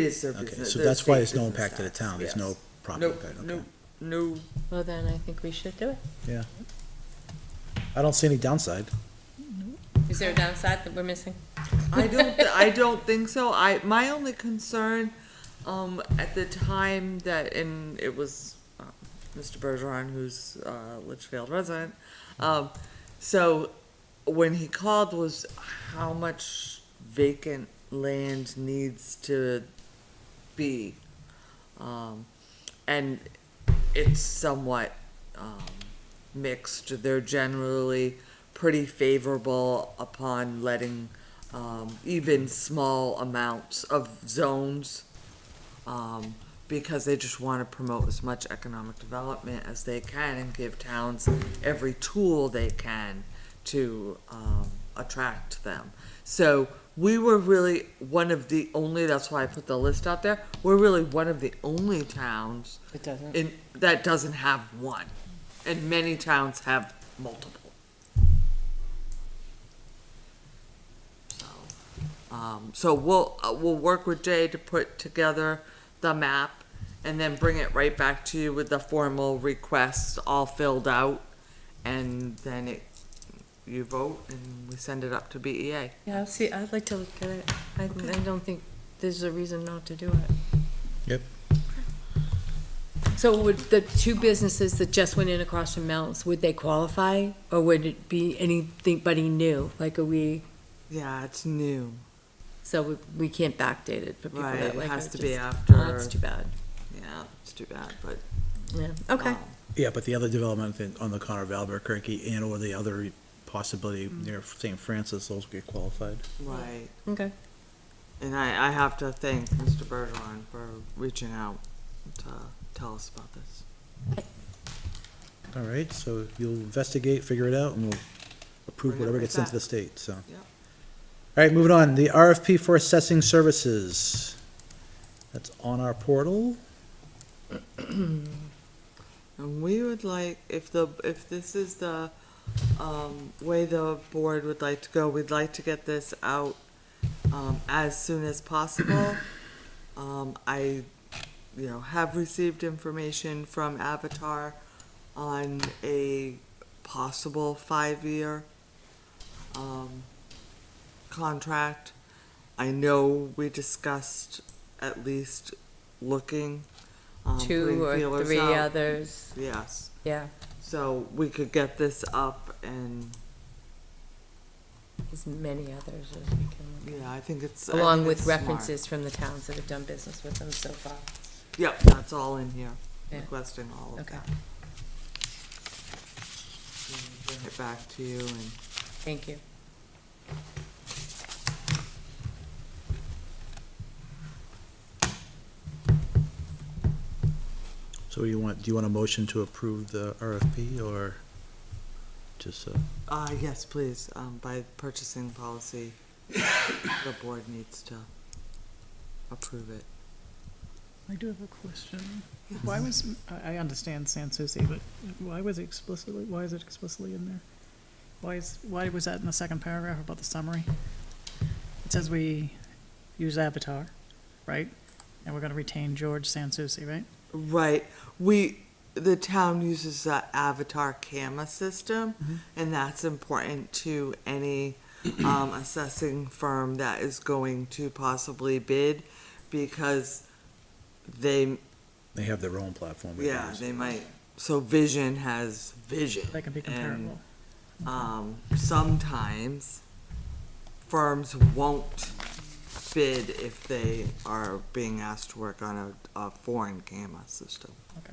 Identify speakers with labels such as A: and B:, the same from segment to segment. A: It is surface.
B: Okay,
A: no-
B: so
A: they're
B: that's why
A: state
B: there's no
A: business
B: impact to the
A: tax,
B: town, there's
A: yes.
B: no property
A: No,
B: impact, okay.
A: no, no,
C: Well, then I think we should do it.
B: Yeah. I don't see any downside.
C: Is there a downside that we're missing?
A: I don't, th- I don't think so. I, my only concern, um, at the time that, and it was, uh, Mr. Bergeron, who's, uh, Litchfield resident, um, so when he called was how much vacant land needs to be. Um, and it's somewhat, um, mixed. They're generally pretty favorable upon letting um, even small amounts of zones, um, because they just want to promote as much economic development as they can and give towns every tool they can to um, attract them. So we were really one of the only. That's why I put the list out there. We're really one of the only towns
C: It doesn't.
A: in that doesn't have one, and many towns have multiple. So, um, so we'll uh, we'll work with Jay to put together the map, and then bring it right back to you with the formal request all filled out, and then it you vote and we send it up to E BEA.
C: Yeah, I'll see, I'd like to look at it. I, I don't think there's a reason not to do it.
B: Yep.
C: So would the two businesses that just went in across from Mel's, would they qualify? Or would it be anybody new? Like, are we,
A: Yeah, it's new.
C: so we, we can't backdate it for people
A: Right,
C: that
A: it
C: like.
A: has
C: are
A: to be
C: just-
A: after-
C: Oh, That's too bad.
A: Yeah, it's too bad, but
C: Yeah, okay.
A: um,
B: Yeah, but the other development thing on the corner of Albuquerque and or the other possibility
A: Mm.
B: near St. Francis, those get qualified.
A: right.
C: Okay.
A: And I, I have to thank Mr. Bergeron for reaching out to tell us about this.
B: All right, so you'll investigate, figure it out, and we'll
A: Bring
B: approve
A: it
B: whatever
A: right
B: gets sent
A: back.
B: to the state, so.
A: Yep.
B: All right, moving on, the RFP for assessing services. That's on our portal.
A: And we would like, if the, if this is the, um, way the board would like to go, we'd like to get this out, um, as soon as possible. Um, I, you know, have received information from Avatar on a possible five-year, um, contract. I know we discussed at least looking, um,
C: Two
A: putting
C: or
A: feelers
C: three
A: out.
C: others,
A: Yes,
C: yeah,
A: so we could get this up and,
C: as many others as we can look at.
A: yeah, I think it's. I
C: along
A: think
C: with
A: it's smart.
C: references from the towns that have done business with them so far.
A: Yep, that's all in here,
C: Yeah.
A: requesting all of
C: Okay.
A: that. And Bring it back to you and,
C: Thank you.
B: So you want, do you want a motion to approve the RFP or just, uh,
A: uh, yes, please, um, by purchasing policy, the board needs to approve it.
D: I do have a question. Why
A: Mm-hmm.
D: was, I, I understand San Souci, but why was it explicitly, why is it explicitly in there? Why is, why was that in the second paragraph about the summary? It says we use Avatar, right? And we're gonna retain George San Souci, right?
A: Right, we, the town uses the Avatar camera system,
D: Mm-hmm.
A: and that's important to any, um, assessing firm that is going to possibly bid, because they,
B: they have their own platform. I
A: yeah,
B: guess.
A: they might, so Vision has Vision.
D: That can be
A: and,
D: comparable.
A: Um, sometimes firms won't bid if they are being asked to work on a, a foreign camera system.
D: Okay,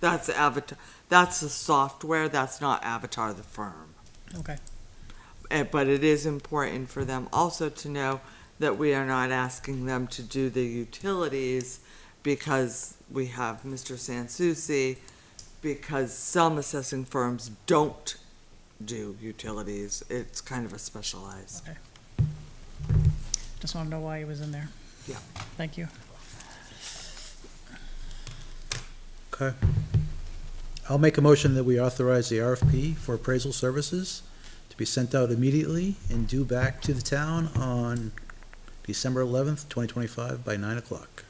A: That's Avatar. That's the software. That's not Avatar the firm.
D: okay.
A: Eh, But it is important for them also to know that we are not asking them to do the utilities because we have Mr. Sansucci, because some assessing firms don't do utilities. It's kind of a specialized.
D: Just wanna know why it was in there.
A: Yeah.
D: Thank you.
B: Okay. I'll make a motion that we authorize the RFP for appraisal services to be sent out immediately and due back to the town on December eleventh, twenty twenty-five by nine o'clock.